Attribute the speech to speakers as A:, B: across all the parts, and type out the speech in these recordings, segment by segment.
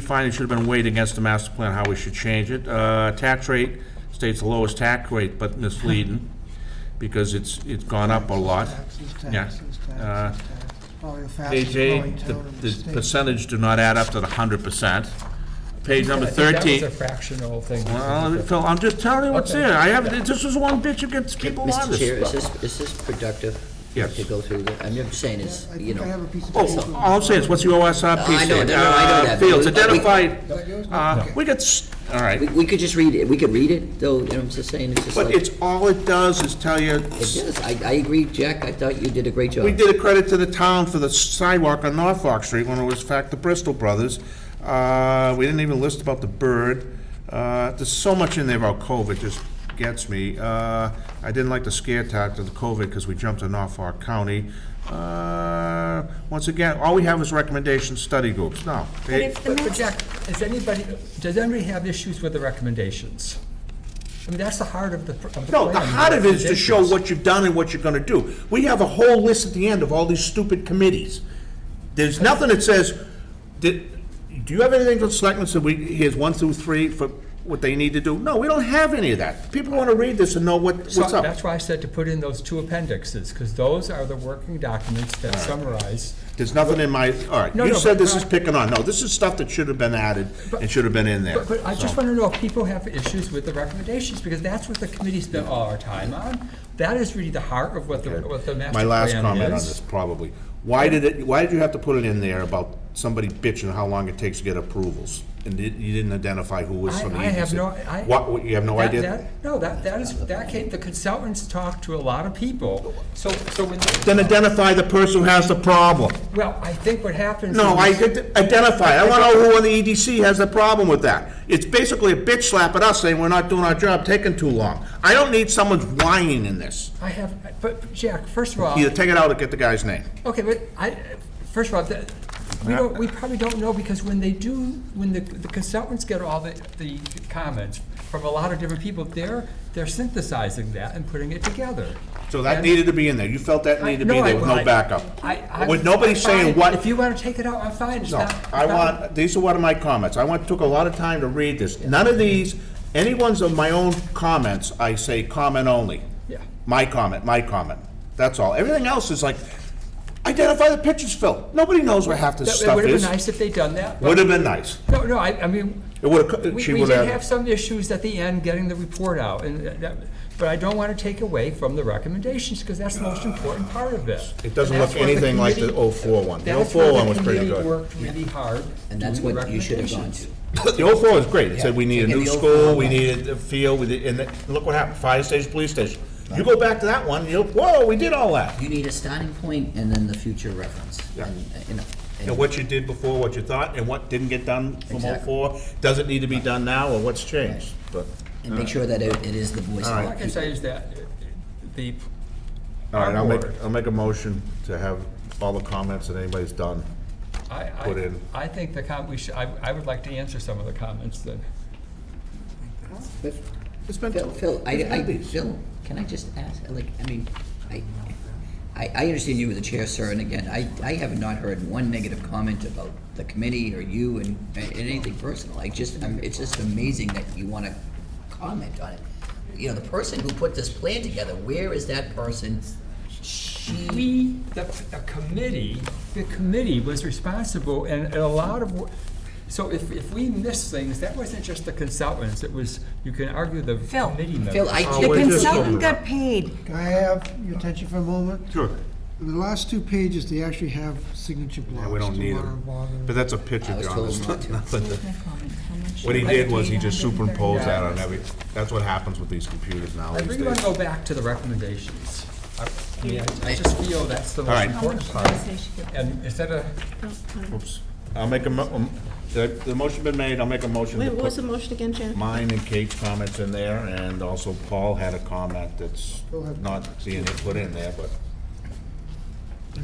A: finding should have been weighed against the master plan, how we should change it. Uh, Tax rate states the lowest tax rate, but misleading, because it's, it's gone up a lot.
B: Taxes,
A: Yeah.
B: taxes,
A: Uh,
B: taxes, taxes. Probably the fastest growing
A: AJ, the-
B: town in the
A: the
B: state.
A: percentage do not add up to the hundred percent. Page number
C: That
A: thirteen.
C: was a fractional thing.
A: Well, Phil, I'm just telling you what's
C: Okay.
A: there. I have, this is one bitch that gets people on
D: Mr. Chair,
A: this
D: is
A: stuff.
D: this, is this productive?
A: Yes.
D: To go through, the- I'm just saying is,
B: I
D: you
B: think I have a
D: know,
B: piece of paper.
A: Oh, all I'm saying is, what's the OSRP
D: I know,
A: say?
D: no, no, I know
A: Uh,
D: that, but
A: Fields
D: we- we-
B: Is that
A: identified,
B: yours?
A: uh, we got, s- all right.
D: we, we could just read it, we could read it, though, you know, I'm just saying, it's just
A: But
D: like, it
A: it's, all it does is tell you,
D: is, I, I agree, Jack, I thought you did a great job.
A: we did a credit to the town for the sidewalk on Norfolk Street when it was, in fact, the Bristol Brothers. Uh, We didn't even list about the bird. Uh, There's so much in there about COVID, just gets me. Uh, I didn't like the scare tactic of the COVID because we jumped on Norfolk County. Uh, Once again, all we have is recommendation study groups, no.
C: But
A: they-
C: if- But but Jack, is anybody, does anybody have issues with the recommendations? I mean, that's the heart of the, pr- of the
A: No,
C: plan.
A: the heart of it is to show
C: recommendations.
A: what you've done and what you're gonna do. We have a whole list at the end of all these stupid committees. There's nothing that says, did, do you have anything for the selectmen, so we, here's one through three for what they need to do? No, we don't have any of that. People wanna read this and know what,
C: So
A: what's up.
C: That's why I said to put in those two appendixes, because those are the working documents that summarize.
A: There's nothing in my, all right,
C: No,
A: you
C: no,
A: said
C: but-
A: this is picking on, no, this is stuff that should have been added and should have been in there.
C: But, but I just want to know if people have issues with the recommendations, because that's what the committee spent all our time on. That is really the heart of what the, what the master
A: My
C: plan
A: last
C: is.
A: comment on this, probably. Why did it, why did you have to put it in there about somebody bitching how long it takes to get approvals? And di- you didn't identify who was
C: I-
A: from the
C: I have
A: agency?
C: no- I-
A: What, what, you have no
C: That-
A: idea?
C: that- No, that, that is, that came, the consultants talked to a lot of people, so, so when,
A: Then identify the person who has the problem.
C: well, I think what happens.
A: No, I
C: is-
A: did- identify, I wanna know who on the EDC has the problem with that. It's basically a bitch slap at us saying we're not doing our job, taking too long. I don't need someone whining in this.
C: I have, but Jack, first of all,
A: Either take it out or get the guy's name.
C: okay, but I, first of all, that, we don't, we probably don't know, because when they do, when the the consultants get all the, the comments from a lot of different people, they're, they're synthesizing that and putting it together.
A: So that
C: And-
A: needed to be in there, you felt that needed to be
C: No, I-
A: there with no
C: I-
A: backup.
C: I, I.
A: With nobody saying
C: fine.
A: what.
C: If you want to take it out, I'm fine, it's
A: No,
C: not.
A: I
C: it's not-
A: want, these are one of my comments. I want, took a lot of time to read this. None of these, any ones of my own comments, I say comment only.
C: Yeah.
A: My comment, my comment. That's all. Everything else is like, identify the pictures, Phil. Nobody knows where half this
C: It
A: stuff
C: would have
A: is.
C: been nice if they'd done that, but-
A: Would have been nice.
C: No, no, I, I mean,
A: It would have,
C: we,
A: she
C: we
A: would
C: did have
A: have,
C: some issues at the end getting the report out, and uh, that, but I don't want to take away from the recommendations, because that's the most important part of it.
A: it doesn't
C: And
A: look
C: that's where the
A: anything like the
C: committee-
A: 04 one. The
C: that's
A: 04
C: where
A: one was pretty
C: committee
A: good.
C: Worked really hard.
D: And that's
C: doing
D: what you should have gone
C: recommendations.
D: to.
A: The 04 was great. It said we need a
D: Yeah,
A: new
D: the 04
A: school, we
D: one.
A: needed a field, we did, and then- look what happened, fire station, police station. You go back to that one, you, whoa, we did all that.
D: You need a starting point and then the future reference.
A: Yeah.
D: And, uh, you know,
A: And
D: and-
A: what you did before, what you thought, and what didn't get done from
D: Exactly.
A: '04, doesn't need to be done now, or what's changed, but.
D: and make sure that it it is the voice of
C: All I
D: our
C: can
D: people.
C: say is that uh, the,
A: All right, I'll make,
C: Onward.
A: I'll make a motion to have all the comments that anybody's done.
C: I,
A: Put in.
C: I, I think the com, we should, I, I would like to answer some of the comments then.
A: It's been,
D: Phil, Phil, I,
A: It's
D: I,
A: obvious.
D: Phil, can I just ask, like, I mean, I, I, I understand you were the chair, sir, and again, I, I have not heard one negative comment about the committee or you and, and anything personal. I just, I'm, it's just amazing that you wanna comment on it. You know, the person who put this plan together, where is that person? She,
C: We, the, the committee, the committee was responsible and and a lot of, wo- so if, if we missed things, that wasn't just the consultants, it was, you can argue the
E: Phil.
C: committee members.
D: Phil, I,
E: The
A: wait, Oh, just
E: consultant
A: hold on.
E: got paid.
B: Can I have your attention for a moment?
A: Sure,
B: The last two pages, they actually have signature blocks.
A: yeah, we don't
B: Do
A: need
B: you wanna
A: them,
B: bother?
A: but that's a picture,
D: I was
A: John,
D: told
A: it's
D: not
A: not
D: to.
A: nothing to-
E: How much?
A: What he did was he just superimposed that on
E: $830.
A: every, that's what happens with these computers now
C: I
A: these
C: really want
A: days.
C: to go back to the recommendations. I I mean, I- I just feel that's the most
A: right.
E: How much
C: important
E: did
C: part.
E: I say she got?
C: And instead of,
A: Oops, I'll make a, mo- um, the, the motion been made, I'll make a motion to
F: Wait, what was the
A: put
F: motion again, Jan?
A: mine and Kate's comments in there, and also Paul had a comment that's
B: Go ahead.
A: not being put in there, but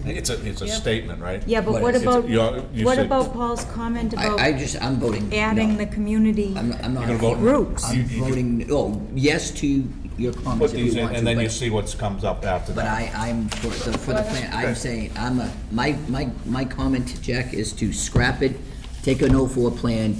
A: it's a, it's a statement, right?
E: Yeah, but
D: What
E: what
D: is
A: it?
E: about,
A: You're- you
E: what
A: said-
E: about Paul's comment
D: I, I
E: about
D: just, I'm voting no.
E: adding the community?
D: I'm, I'm not.
A: You're gonna vote-
E: Groups.
D: I'm
A: You- you-
D: voting, oh, yes to your
A: Put
D: comments if
A: these
D: you
A: in,
D: want to,
A: and then you
D: but,
A: see what comes up after
D: but
A: that.
D: I, I'm, for the, for the plan, I'm saying, I'm a, my, my, my comment, Jack, is to scrap it, take an 04 plan,